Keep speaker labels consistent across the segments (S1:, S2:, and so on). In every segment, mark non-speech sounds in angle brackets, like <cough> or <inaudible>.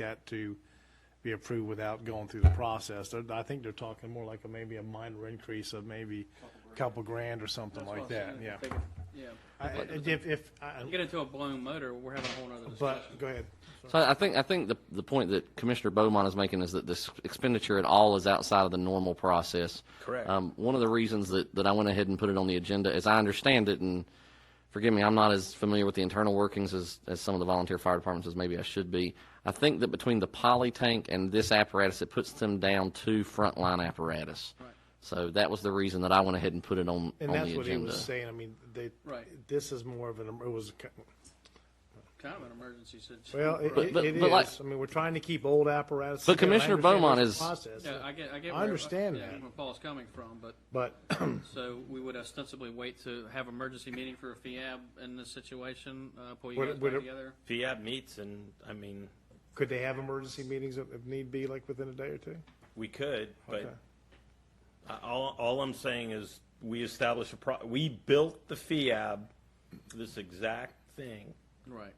S1: that to be approved without going through the process. They're- I think they're talking more like a- maybe a minor increase of maybe a couple grand or something
S2: That's
S1: like
S2: what I'm
S1: that,
S2: saying,
S1: yeah.
S2: take it- Yeah.
S1: I- I- If, if, I-
S2: You get into a blown motor, we're having a whole nother discussion.
S1: but, go ahead.
S3: So I I think I think the the point that Commissioner Beaumont is making is that this expenditure at all is outside of the normal process.
S4: Correct.
S3: Um, one of the reasons that, that I went ahead and put it on the agenda, as I understand it, and forgive me, I'm not as familiar with the internal workings as, as some of the volunteer fire departments as maybe I should be. I think that between the poly tank and this apparatus, it puts them down to frontline apparatus. Right. So that was the reason that I went ahead and put it on
S1: And
S3: on
S1: that's
S3: the
S1: what he
S3: agenda.
S1: was saying, I mean, they,
S2: Right.
S1: this is more of an, it was, a co-
S2: Kind of an emergency situation.
S1: well, it
S3: But-
S1: it-
S3: but-
S1: it
S3: but like-
S1: is, I mean, we're trying to keep old apparatus. together.
S3: But
S1: I
S3: Commissioner
S1: understand
S3: Beaumont
S1: there's a
S3: is-
S1: process,
S2: Yeah, I get, I get.
S1: I
S2: where-
S1: understand
S2: yeah,
S1: that.
S2: Where Paul's coming from, but,
S1: But, <coughs>
S2: so we would ostensibly wait to have emergency meeting for a FIAB in this situation, uh, pull you
S1: Would it-
S2: guys
S1: would
S2: back
S1: it-
S2: together?
S4: FIAB meets, and I mean,
S1: could they have emergency meetings if if need be, like within a day or two?
S4: we could,
S1: Okay.
S4: but I- all, all I'm saying is we established a pro, we built the FIAB, for this exact thing.
S2: Right.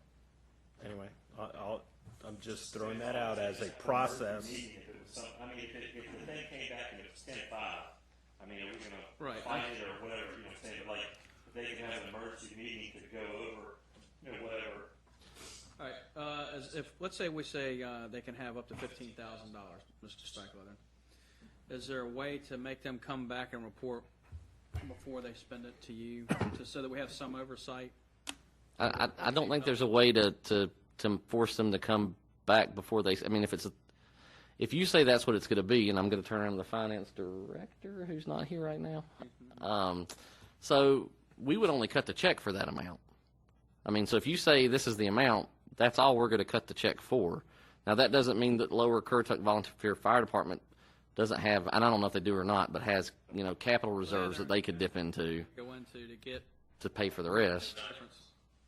S4: Anyway, I, I'll, I'm just throwing that out as a process.
S5: If it was some, I mean, if, it, if the thing came back and it was ten five, I mean, are we gonna
S2: Right.
S5: fight it or whatever? You know, what I'm saying, but like, if they can have an emergency meeting to go over, you know, whatever.
S2: All right, uh, as if, let's say we say, uh, they can have up to fifteen thousand dollars, Mr. Strikeweather. Is there a way to make them come back and report before they spend it to you, to, so that we have some oversight?
S3: I, I I don't think there's a way to, to, to force them to come back before they, I mean, if it's, a if you say that's what it's going to be, and I'm going to turn around to the finance director, who's not here right now. Um, so we would only cut the check for that amount. I mean, so if you say this is the amount, that's all we're going to cut the check for. Now, that doesn't mean that Lower Currituck Volunteer Fire Department doesn't have, and I don't know if they do or not, but has, you know, capital reserves that they could dip into
S2: Go into to get
S3: to pay for the rest.
S2: difference,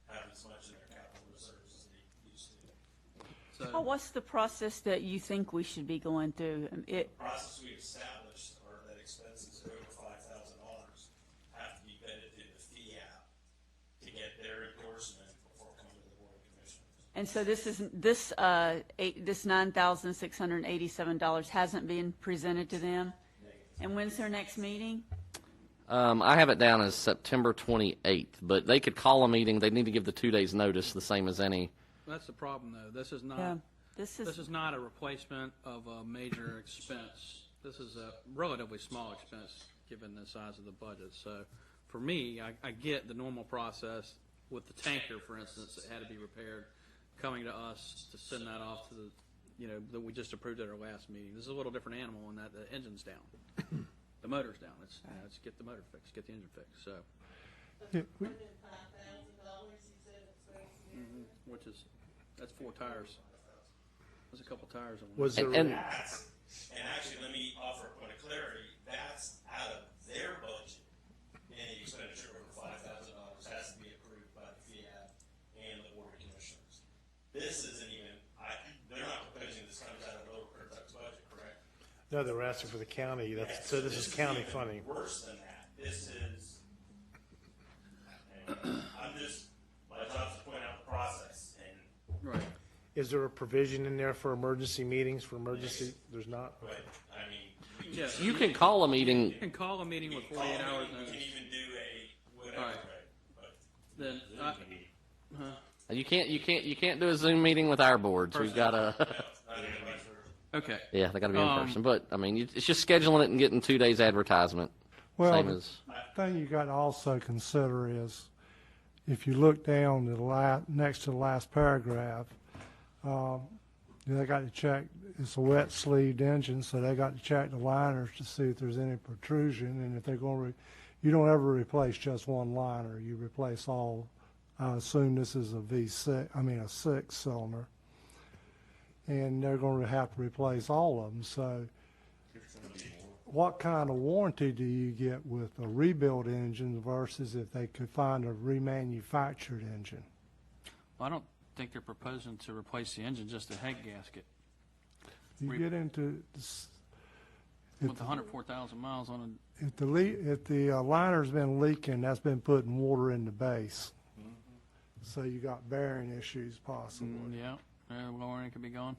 S6: have as much in their capital reserves as they used to.
S7: Well,
S2: so,
S7: what's the process that you think we should be going through? Um, It,
S6: The Process we established are that expenses that are over five thousand dollars have to be vetted through the FIAB to get their endorsement before coming to the Board of Commissioners.
S7: and so this is, this, uh, eight, this nine thousand six hundred and eighty-seven dollars hasn't been presented to them? And when's their next meeting?
S3: Um, I have it down as September 28th, but they could call a meeting. They need to give the two days notice, the same as any.
S2: that's the problem, though, this is
S7: Yeah,
S2: not,
S7: this
S2: Uh, this
S7: is,
S2: is not a replacement of a major expense. This is a relatively small expense, given the size of the budget, so, for me, I, I get the normal process with the tanker, for instance, that had to be repaired, coming to us to send that off to the, you know, that we just approved at our last meeting. This is a little different animal in that the engine's down, the motor's down, it's, it's get the motor fixed, get the engine fixed, so,
S8: five thousand dollars, he said it's very serious.
S2: which is, that's four tires. There's a couple tires on
S1: Was
S3: And,
S1: there,
S3: and
S6: That's, and actually, let me offer a point of clarity, that's out of their budget. Any expenditure over five thousand dollars has to be approved by the FIAB and the Board of Commissioners. This isn't even, I, they're not proposing this comes out of Lower Currituck's budget, correct?
S1: no, they were asking for the county, that's, so this is county
S6: even
S1: funding.
S6: Worse than that, this is,
S5: I'm just, my job is to point out the process, and
S2: Right.
S1: Is there a provision in there for emergency meetings, for emergency, there's not?
S6: but, I mean, we
S2: Yeah.
S3: you can call a meeting.
S2: You can call a meeting with
S6: can call,
S2: forty-eight hours
S6: we can
S2: notice,
S6: even do a whatever,
S2: Alright.
S6: right? But
S2: then, uh, I,
S3: You can't. You can't. You can't do a Zoom meeting with our boards. We've got a.
S6: it's not even much for-
S2: okay.
S3: <laughs> yeah, they got to be in
S2: Um,
S3: person. But I mean, you- it's just scheduling it and getting two days advertisement.
S9: Well,
S3: same
S9: the
S3: as
S9: thing you got to also consider is, if you look down to the la, next to the last paragraph, um, they got to check, it's a wet sleeved engine, so they got to check the liners to see if there's any protrusion, and if they're going to, you don't ever replace just one liner, you replace all, I assume this is a V six, I mean, a six cylinder. And they're going to have to replace all of them, so what kind of warranty do you get with a rebuilt engine versus if they could find a remanufactured engine?
S2: Well, I don't think they're proposing to replace the engine, just the head gasket.
S9: You
S2: Re-
S9: get into, s-
S2: With the hundred four thousand miles on
S9: if the le, if the uh, liner's been leaking, that's been putting water in the base. So you got bearing issues
S2: it,
S9: possibly.
S2: yeah, uh, lowering it could be gone.